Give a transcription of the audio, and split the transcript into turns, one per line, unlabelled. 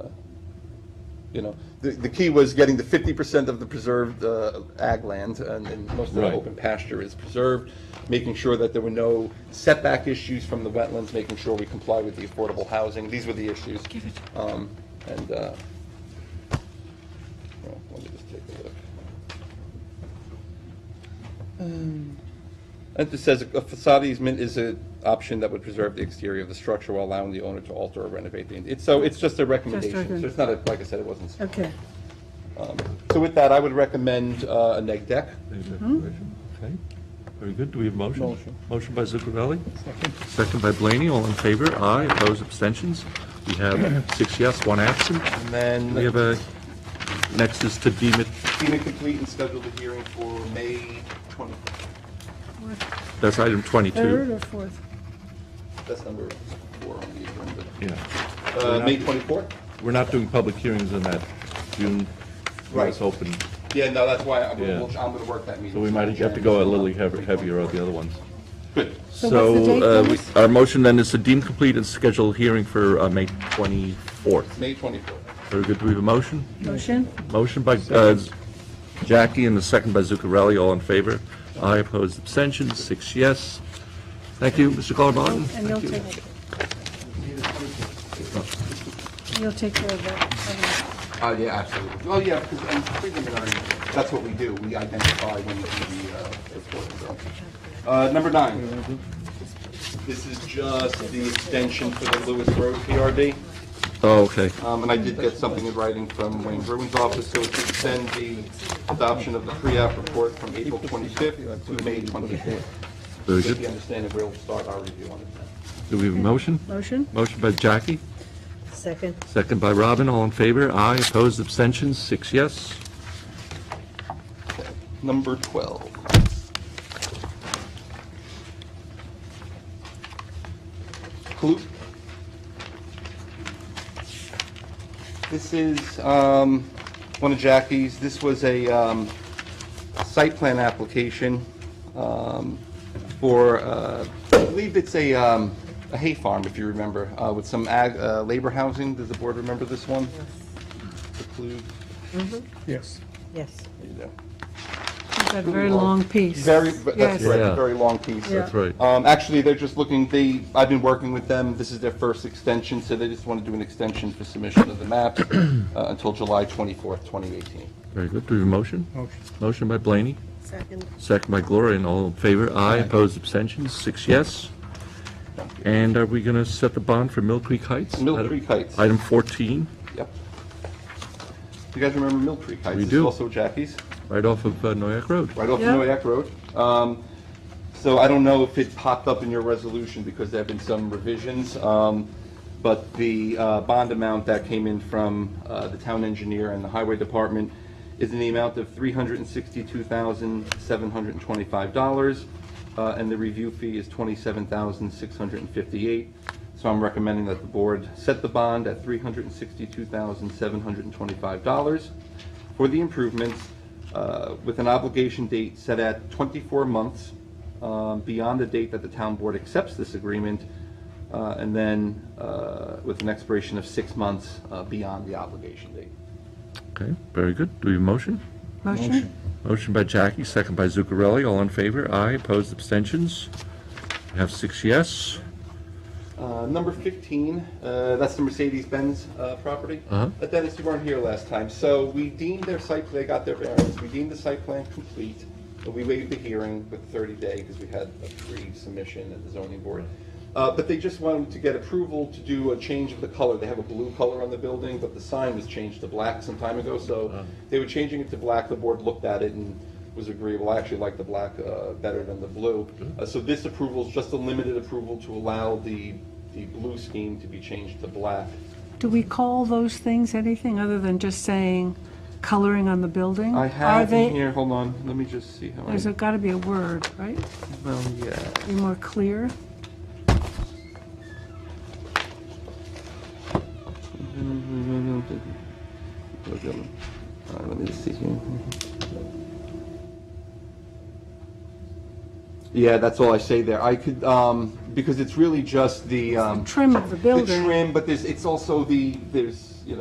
Uh, You know, the, the key was getting the fifty percent of the preserved uh, ag land, and, and most of the
Right.
open pasture is preserved, making sure that there were no setback issues from the wetlands, making sure we comply with the affordable housing, these were the issues. Um, And, uh, well, let me just take a look. Um. And it says a facade easement is an option that would preserve the exterior of the structure while allowing the owner to alter or renovate the, it's, so it's just a recommendation.
recommend-
So it's not, a like I said, it wasn't.
Okay,
So with that, I would recommend uh, a neg deck.
Mm-hmm.
Okay, very good. Do we have a motion?
Motion.
Motion by Zuccarelli? Second. Second by Blaney, all in favor? Aye, opposed, abstentions? We have six yes, one absent.
And then
We have a, next is to deem it,
deem it complete and schedule the hearing for May 20th.
that's item
third
22.
or fourth?
That's number four on the agenda.
Yeah,
Uh, May 24th?
we're not doing public hearings on that June, when
Right.
it's open,
Yeah, no, that's why I'm
Yeah.
going to work that meeting.
so we might have to go a little heav- heavier on the other ones.
Good.
So what's the date,
So, uh, we-
Dennis?
our motion then is to deem complete and schedule a hearing for uh, May 24th.
May 24th.
Very good, do we have a motion?
Motion?
Motion by uh, Jackie and the second by Zuccarelli, all in favor. Aye, opposed, abstentions, six yes. Thank you, Mr. Colabon.
And you'll take, you'll take care of that.
Oh, yeah, absolutely. Oh, yeah, because in preliminary, that's what we do. We identify when the, uh, report is on. Uh, number nine. This is just the extension for the Lewis Road PRD.
Oh, okay.
Um, and I did get something in writing from Wayne Bruin's office, so to extend the adoption of the pre-app report from April twenty-fifth to May twenty-fourth.
Very
If you
good.
understand it, we'll start our review on it then.
Do we have a motion?
Motion?
Motion by Jackie,
Second.
second by Robin, all in favor. Aye, opposed, abstentions, six yes.
Number 12. Klute. This is um, one of Jackie's. This was a um, site plan application um, for, uh, I believe it's a um, a hay farm, if you remember, uh, with some ag, uh, labor housing. Does the board remember this one? The Klute.
Yes.
Yes.
There you go.
That very long piece.
Very, that's
Yes.
Yeah.
correct, very long piece.
That's
right.
Um, actually, they're just looking, they, I've been working with them, this is their first extension, so they just want to do an extension for submission of the maps uh, until July 24th, 2018.
Very good. Do we have a motion?
Motion.
Motion by Blaney,
Second.
second by Gloria, and all in favor. Aye, opposed, abstentions, six yes. And are we going to set the bond for Mill Creek Heights?
Mill Creek Heights,
Item 14,
yep. You guys remember Mill Creek Heights?
We
It's
do.
also Jackie's.
right off of uh, Noyak Road.
right off
Yeah.
Noyak Road. Um, So I don't know if it popped up in your resolution because there have been some revisions, um, but the uh, bond amount that came in from uh, the town engineer and the highway department is in the amount of $362,725, uh, and the review fee is $27,658. So I'm recommending that the board set the bond at $362,725 for the improvements uh, with an obligation date set at 24 months um, beyond the date that the town board accepts this agreement, uh, and then uh, with an expiration of six months uh, beyond the obligation date.
Okay, very good. Do we have a motion?
Motion?
Motion by Jackie, second by Zuccarelli. All in favor? Aye. Opposed? Abstentions? We have six yes.
Uh, Number 15, uh, that's the Mercedes-Benz uh, property.
Uh-huh.
Uh, Dennis, you weren't here last time, so we deemed their site, plan- they got their variance, we deemed the site plan complete, but we waived the hearing with 30 day because we had a pre-submission at the zoning board. Uh, But they just wanted to get approval to do a change of the color. They have a blue color on the building, but the sign was changed to black some time ago, so they were changing it to black. The board looked at it and was agreeable. I actually like the black uh, better than the blue. Uh, So this approval is just a limited approval to allow the, the blue scheme to be changed to black.
Do we call those things anything other than just saying coloring on the building?
I
Are
have in
they?
here, hold on, let me just see how I,
There's got to be a word, right?
well, yeah.
Be more
Um,
clear?
Uh, Let me just see here. Yeah, that's all I say there. I could, um, because it's really just the, um,
Trim of the
the
building?
trim, but there's, it's also the, there's